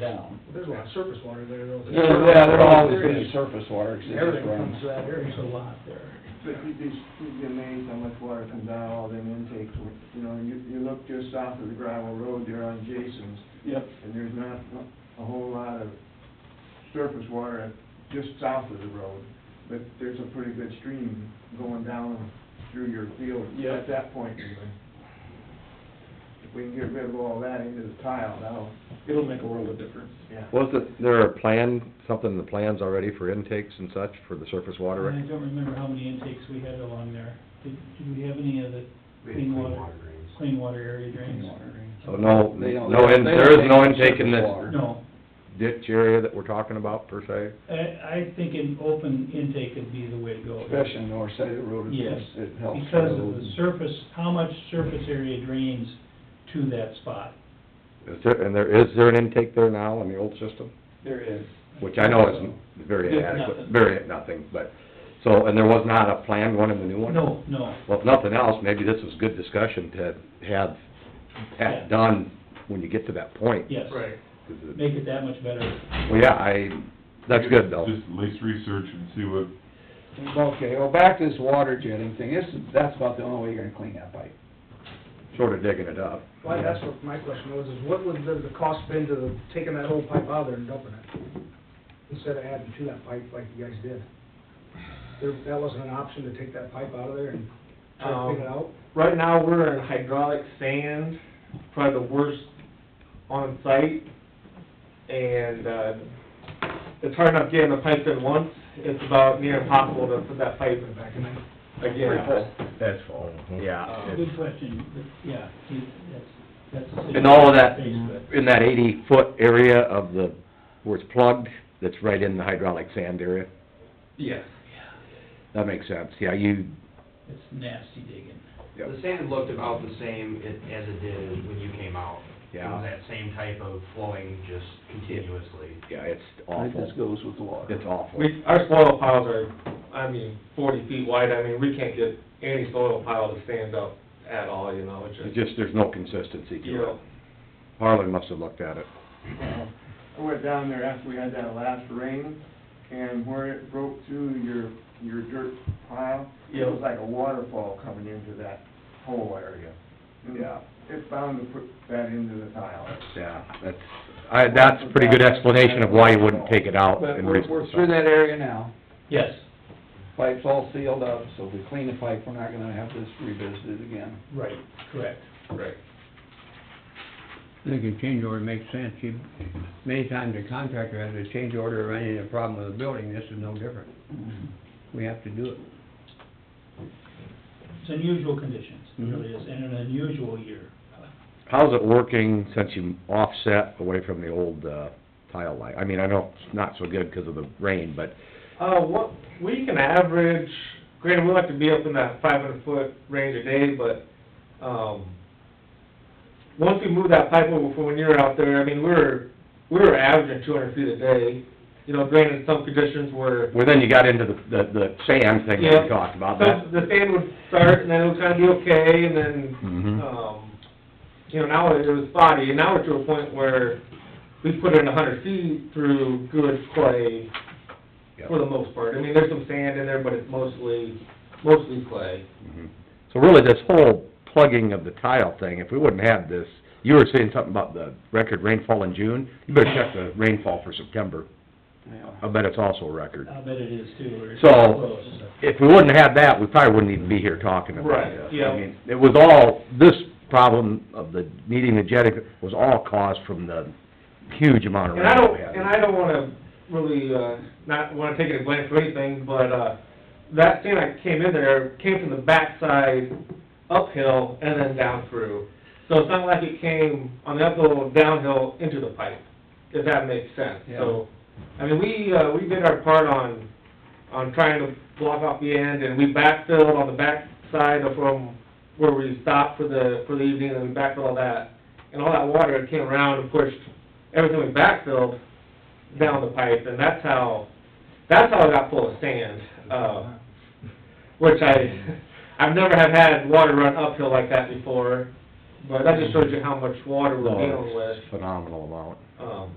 down. There's a lot of surface water there though. Yeah, they're always gonna be surface water, 'cause it just Everything comes runs. to that area, there's a lot there. But you'd be, you'd be amazed how much water comes out of all them intakes, you know, you, you look just south of the gravel road there on Jason's, Yep. and there's not a whole lot of surface water just south of the road, but there's a pretty good stream going down through your field Yeah. at that point even. If we can get rid of all that into the tile, that'll, It'll make a world of difference. yeah. Wasn't there a plan, something in the plans already for intakes and such for the surface water? I don't remember how many intakes we had along there. Did, did we have any of the We clean clean water, clean water area drains? So no, They don't- no, in- they there don't is no take intake in surface this water. No, ditch area that we're talking about per se? I, I think an open intake would be the way to go. Especially in the north side of the road, it Yes, helps, it helps. because of road. the surface, how much surface area drains to that spot? Is there, and there, is there an intake there now on the old system? There is. Which I know is very There's inadequate, nothing. very nothing, but, so, and there was not a planned one in the new one? No, no, Well, if nothing else, maybe this was good discussion to Yeah. have that done when you get to that point. yes. Right. 'Cause it- Make it that much better. Well, yeah, I, that's good though. Just at least research and see what, Okay, well, back to this water jetting thing, this, is- that's about the only way you're gonna clean that pipe. Short of digging it up. Well, that's what my question was, is what would the, the cost been to the- taking that whole pipe out of there and dumping it? Instead of adding to that pipe like you guys did? There, that wasn't an option to take that pipe out of there and try to Um, figure it out? Right now, we're in hydraulic sand, probably the worst on site, and, uh, it's hard enough getting the pipe in once, it's about near impossible to put that pipe Put it back in there? again. That's full, yeah. Good question, but, yeah, you- that's, that's. a And all of that, situation to face, in that eighty-foot area of the, where it's plugged, that's right in the hydraulic sand area? Yes. That makes sense, yeah, you, but It's nasty digging. Yep. The sand looked about the same it- as it did when you came out. It was yeah, that same type of flowing just continuously. yeah, it's I think awful, this goes with the water. it's awful. We, our soil piles are, I mean, forty feet wide, I mean, we can't get any soil pile to stand up at all, you know, it's It's just, just, there's no consistency you to it. know. Harlan must have looked at it. Uh, I went down there after we had that last rain, and where it broke through your, your dirt pile, it was Yeah. like a waterfall coming into that whole area. And Yeah. It's bound to put that into the tile. Yeah, that's, I, that's a pretty good explanation of why you wouldn't take it out But and we're, raise we're the through size. that area now, Yes, pipe's all sealed up, so if we clean the pipe, we're not gonna have this revisited again. right, correct. Right. I think a change order makes sense. You, many times a contractor has a change order or any problem with a building, this is no different. We have to do it. It's unusual conditions, it Mhm. really is, and an unusual year. How's it working since you offset away from the old, uh, tile line? I mean, I know it's not so good because of the rain, but Uh, what, we can average, granted, we like to be up in that five hundred foot range a day, but, um, once we moved that pipe over from when you were out there, I mean, we were, we were averaging two hundred feet a day. You know, granted, some conditions were, Well, then you got into the, the, the sand thing that Yeah. we talked about, that, some, the sand would start and then it would kind of be okay, and then, Mhm. um, you know, now it was spotty, and now we're to a point where we put in a hundred feet through good clay, for the most part. I mean, there's some sand in there, but it's mostly, mostly clay. Mhm. So really, this whole plugging of the tile thing, if we wouldn't have this, you were saying something about the record rainfall in June, you better check the rainfall for September, Yeah. I bet it's also a record. I'll bet it is too, or it's So- close. If we wouldn't have that, we probably wouldn't even be here talking about Right, this. yeah. I mean, it was all, this problem of the needing the jetting was all caused from the huge amount of And rain I we don't, had. and I don't wanna really, uh, not wanna take any blame for anything, but, uh, that sand that came in there came from the backside uphill and then down through. So it's not like it came on the uphill, downhill into the pipe, if that makes sense. So, I mean, we, uh, we did our part on, on trying to block off the end, and we backfilled on the backside of from where we stopped for the, for the evening, and we backfilled all that. And all that water came around and pushed everything we backfilled down the pipe, and that's how, that's how it got full of sand, uh, which I, I've never have had water run uphill like that before, but that just shows you how much water we're No, dealing with. it's Oh, Phenomenal amount. Um,